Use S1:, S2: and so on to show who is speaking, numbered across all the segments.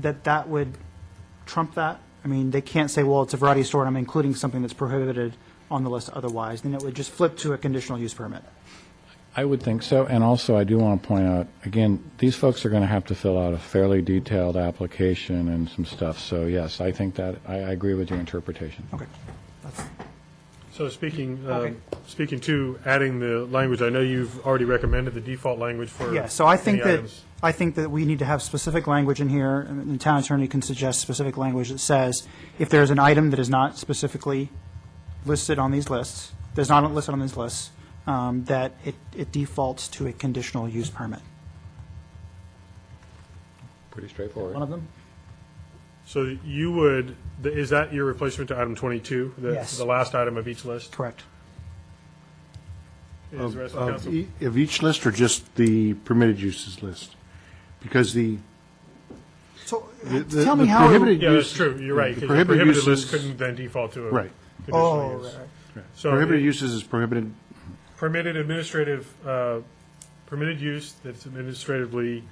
S1: that that would trump that? I mean, they can't say, well, it's a variety store and I'm including something that's prohibited on the list otherwise, then it would just flip to a conditional use permit.
S2: I would think so, and also I do want to point out, again, these folks are going to have to fill out a fairly detailed application and some stuff, so yes, I think that, I, I agree with your interpretation.
S1: Okay.
S3: So speaking,
S1: Okay.
S3: um, speaking to adding the language, I know you've already recommended the default language for
S1: Yeah, so I think
S3: any
S1: that,
S3: items.
S1: I think that we need to have specific language in here, and the town attorney can suggest specific language that says, if there's an item that is not specifically listed on these lists, that's not listed on these lists, um, that it, it defaults to a conditional use permit.
S2: Pretty straightforward.
S1: One of them?
S3: So you would, th- is that your replacement to item 22? The-
S1: Yes.
S3: The last item of each list?
S1: Correct.
S3: Is the rest of
S4: Of
S3: council?
S4: e- Of each list or just the permitted uses list? Because the,
S1: So,
S4: The- the-
S1: tell me
S4: the
S1: how. it-
S4: prohibited-
S3: Yeah, that's true, you're right, 'cause
S4: The
S3: the
S4: prohibited
S3: prohibited list
S4: uses-
S3: couldn't then default to a.
S4: Right.
S1: Oh,
S3: conditional use.
S1: right, right.
S3: So
S4: prohibited
S3: it-
S4: uses is prohibited,
S3: permitted administrative, uh, permitted use that's administratively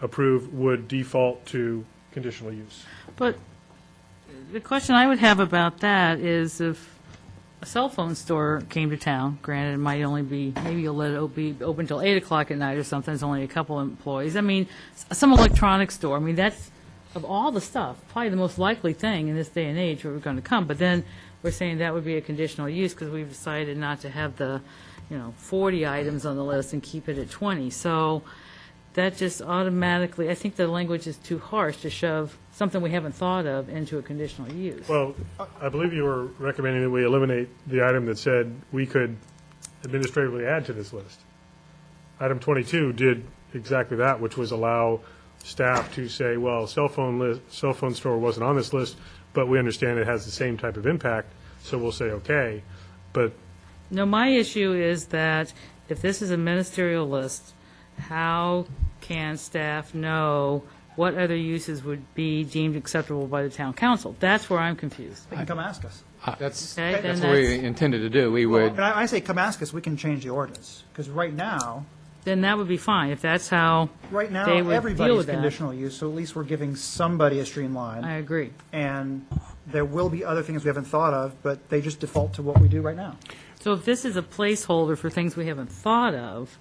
S3: approved would default to conditional use.
S5: But the question I would have about that is if a cell phone store came to town, granted, it might only be, maybe you'll let it o- be open till 8 o'clock at night or something, it's only a couple employees. I mean, s- some electronics store, I mean, that's, of all the stuff, probably the most likely thing in this day and age where we're going to come. But then we're saying that would be a conditional use because we've decided not to have the, you know, 40 items on the list and keep it at 20. So that just automatically, I think the language is too harsh to shove something we haven't thought of into a conditional use.
S3: Well, I believe you were recommending that we eliminate the item that said we could administratively add to this list. Item 22 did exactly that, which was allow staff to say, well, cell phone list, cell phone store wasn't on this list, but we understand it has the same type of impact, so we'll say, okay. But
S5: No, my issue is that if this is a ministerial list, how can staff know what other uses would be deemed acceptable by the town council? That's where I'm confused.
S1: They can come ask us.
S6: That's,
S5: Okay,
S6: that's
S5: then
S6: what we
S5: that's-
S6: intended to do. We would,
S1: And I, I say come ask us, we can change the ordinance, because right now,
S5: Then that would be fine, if that's how,
S1: right now,
S5: They would deal
S1: everybody's
S5: with that.
S1: conditional use, so at least we're giving somebody a streamline.
S5: I agree.
S1: and there will be other things we haven't thought of, but they just default to what we do right now.
S5: So if this is a placeholder for things we haven't thought of,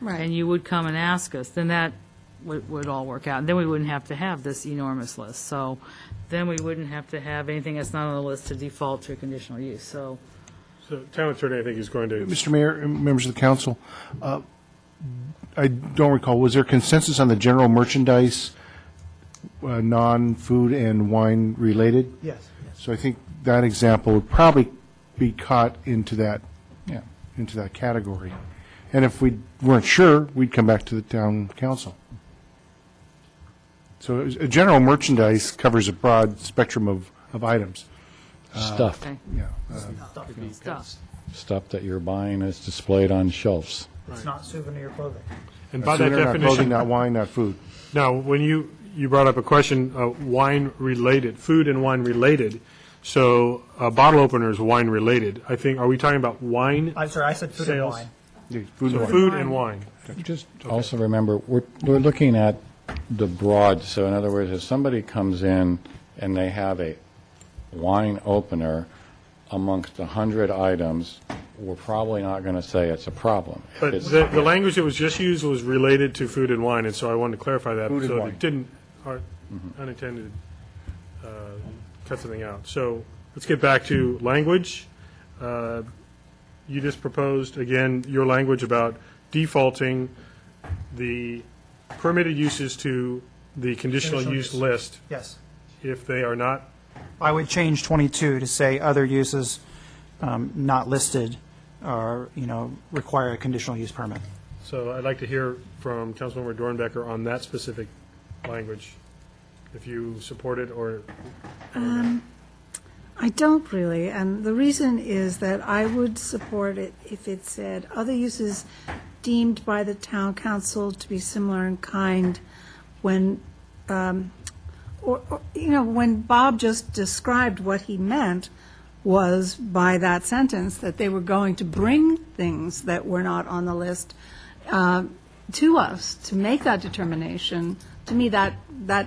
S5: and
S7: Right.
S5: you would come and ask us, then that would, would all work out. Then we wouldn't have to have this enormous list. So then we wouldn't have to have anything that's not on the list to default to a conditional use, so.
S3: the town attorney, I think, is going to,
S4: Mr. Mayor, and members of the council, uh, I don't recall, was there consensus on the general merchandise, uh, non-food and wine related?
S1: Yes.
S4: So I think that example would probably be caught into that,
S2: Yeah.
S4: into that category. And if we weren't sure, we'd come back to the town council. So it was- a general merchandise covers a broad spectrum of, of items. Uh,
S2: Stuff,
S5: Okay.
S4: Yeah.
S5: Stuff.
S2: stuff that you're buying is displayed on shelves.
S1: It's not souvenir clothing.
S3: and by that
S4: Souvenir, not clothing,
S3: definition,
S4: Not wine, not food.
S3: Now, when you, you brought up a question, uh, wine-related, food and wine-related, so a bottle opener is wine-related. I think, are we talking about wine,
S1: I'm sorry, I said food and
S3: Sales.
S1: wine.
S4: Yeah, Food and wine.
S3: food and wine?
S2: Just also remember, we're, we're looking at the broad, so in other words, if somebody comes in and they have a wine opener amongst a 100 items, we're probably not going to say it's a problem. If
S3: But
S2: it's-
S3: the, the language that was just used was related to food and wine, and so I wanted to clarify that.
S2: Food and
S3: So
S2: wine.
S3: it didn't, or unintended, uh, cut something out. So let's get back to language. Uh, You just proposed, again, your language about defaulting the permitted uses to the conditional
S1: Conditional
S3: use
S1: use.
S3: list
S1: Yes.
S3: if they are not
S1: I would change 22 to say other uses um, not listed are, you know, require a conditional use permit.
S3: So I'd like to hear from Councilmember Dornbecker on that specific language, if you support it or
S7: I don't really, and the reason is that I would support it if it said, "Other uses deemed by the town council to be similar in kind when, um, or, or, you know, when Bob just described what he meant was by that sentence, that they were going to bring things that were not on the list uh, to us to make that determination. To me, that, that